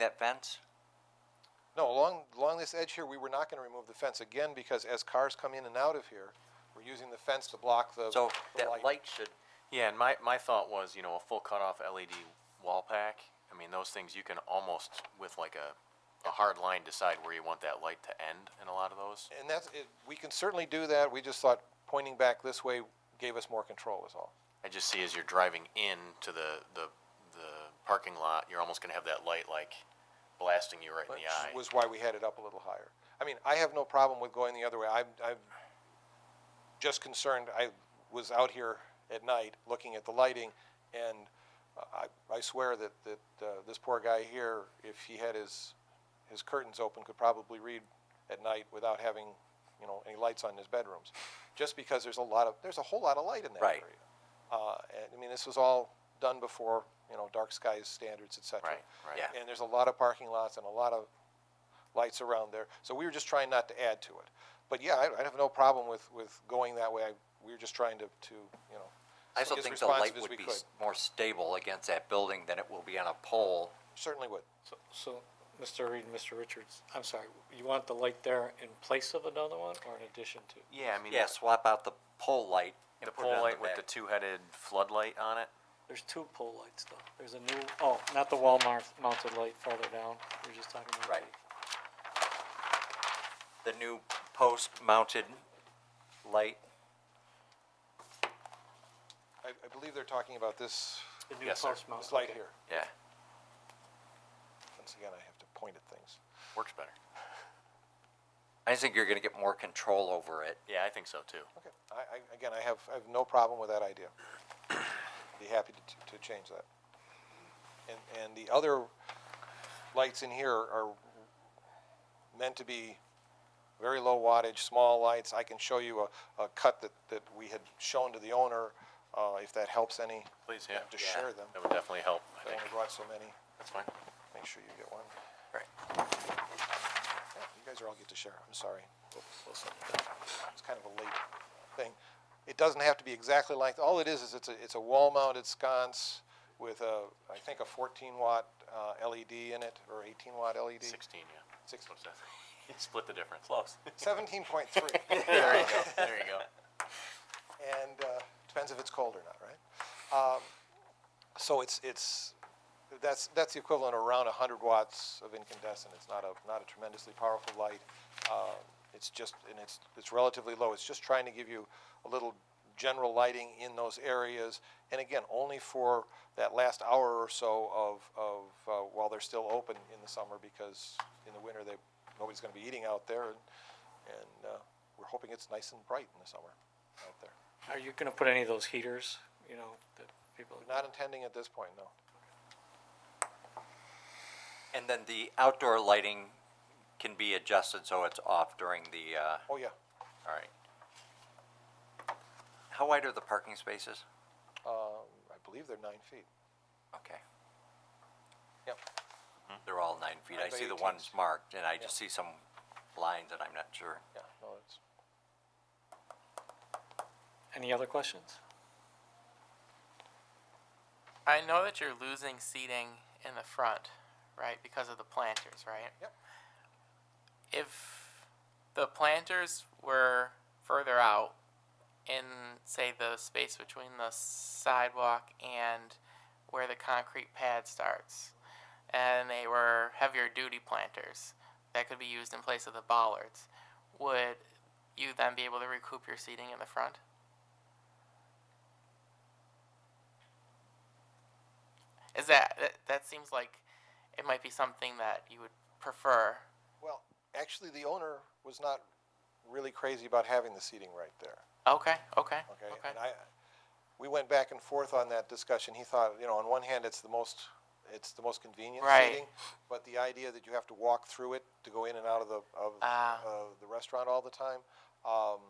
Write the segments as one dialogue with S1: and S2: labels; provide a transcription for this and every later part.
S1: that fence?
S2: No, along, along this edge here, we were not going to remove the fence again because as cars come in and out of here, we're using the fence to block the,
S1: So
S2: the
S1: that light should,
S3: Yeah, and my, my thought was, you know, a full cutoff LED wall pack. I mean, those things you can almost, with like a, a hard line, decide where you want that light to end in a lot of those.
S2: And that's, it, we can certainly do that. We just thought pointing back this way gave us more control is all.
S3: I just see as you're driving in to the, the, the parking lot, you're almost going to have that light like blasting you right in
S2: Which
S3: the eye.
S2: was why we had it up a little higher. I mean, I have no problem with going the other way. I'm, I'm just concerned, I was out here at night looking at the lighting, and I, I swear that, that, uh, this poor guy here, if he had his, his curtains open, could probably read at night without having, you know, any lights on in his bedrooms, just because there's a lot of, there's a whole lot of light in that area.
S1: Right.
S2: Uh, and, I mean, this was all done before, you know, dark skies standards, et cetera.
S3: Right, right.
S1: Yeah.
S2: And there's a lot of parking lots and a lot of lights around there. So we were just trying not to add to it. But yeah, I, I have no problem with, with going that way. I, we were just trying to, to, you know.
S1: I still
S2: be as
S1: think the light
S2: responsive as
S1: would
S2: we
S1: be
S2: could.
S1: s- more stable against that building than it will be on a pole.
S2: Certainly would.
S4: So, so, Mr. Reed and Mr. Richards, I'm sorry, you want the light there in place of another one or in addition to?
S3: Yeah, I mean,
S1: Yeah, swap out the pole light
S3: the,
S1: and
S3: the
S1: put it
S3: pole
S1: on
S3: light with the
S1: back.
S3: two-headed floodlight on it.
S4: There's two pole lights though. There's a new, oh, not the wall mar- mounted light farther down. You're just talking about.
S1: Right. The new post-mounted light,
S2: I, I believe they're talking about this,
S4: The new
S3: Yes, sir.
S4: post mount.
S2: this light
S4: okay.
S2: here.
S3: Yeah,
S2: Once again, I have to point at things.
S3: works better.
S1: I think you're gonna get more control over it.
S3: Yeah, I think so too.
S2: Okay. I, I, again, I have, I have no problem with that idea. Be happy to, to change that. And, and the other lights in here are meant to be very low wattage, small lights. I can show you a, a cut that, that we had shown to the owner, uh, if that helps any.
S3: Please, yeah.
S2: To share them.
S3: That would definitely help, I
S2: I
S3: think.
S2: only brought so many.
S3: That's fine.
S2: Make sure you get one.
S1: Right.
S2: Yeah, You guys are all get to share. I'm sorry.
S4: Listen,
S2: It's kind of a late thing. It doesn't have to be exactly like, all it is, is it's a, it's a wall-mounted sconce with a, I think a fourteen watt, uh, LED in it, or eighteen watt LED.
S3: 16, yeah.
S2: E Six-
S3: What's that? Split the difference. Close.
S2: Seventeen point three.
S3: there you go. There you go.
S2: and uh, depends if it's cold or not, right? Um, so it's it's that's that's the equivalent of around 100 watts of incandescent. It's not a not a tremendously powerful light. Uh, it's just and it's it's relatively low. It's just trying to give you a little general lighting in those areas, and again, only for that last hour or so of of uh, while they're still open in the summer, because in the winter they nobody's going to be eating out there, and, and uh, we're hoping it's nice and bright in the summer out there.
S4: Are you gonna put any of those heaters, you know, that people?
S2: Not intending at this point, no.
S1: And then the outdoor lighting can be adjusted so it's off during the, uh,
S2: Oh, yeah.
S1: all right. How wide are the parking spaces?
S2: Um, I believe they're nine feet.
S1: Okay, Mm-hmm.
S2: Yep.
S1: they're all nine feet. I
S2: Nine by
S1: see the
S2: 18s.
S1: ones marked and I just
S2: Yeah.
S1: see some lines and I'm not sure.
S2: Yeah. No, it's
S4: Any other questions?
S5: I know that you're losing seating in the front, right, because of the planters, right?
S2: Yep.
S5: If the planters were further out in, say, the space between the sidewalk and where the concrete pad starts, and they were heavier duty planters that could be used in place of the bollards, would you then be able to recoup your seating in the front? Is that that, that seems like it might be something that you would prefer?
S2: well, actually, the owner was not really crazy about having the seating right there.
S5: Okay, okay,
S2: Okay.
S5: okay.
S2: And I, we went back and forth on that discussion. He thought, you know, on one hand, it's the most, it's the most convenient
S5: Right.
S2: seating, but the idea that you have to walk through it to go in and out of the of
S5: Ah.
S2: uh, the restaurant all the time. Um,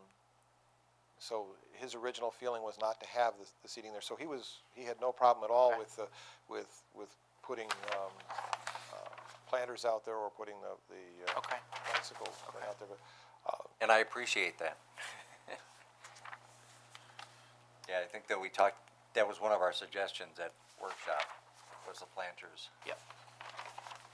S2: so his original feeling was not to have the, the seating there. So he was he had no problem at all
S5: Okay.
S2: with the with with putting um, uh, planters out there or putting the the uh,
S5: Okay.
S2: bicycle thing out there. But
S1: And I appreciate that. Yeah, I think that we talked, that was one of our suggestions at workshop, was the planters.
S5: Yep.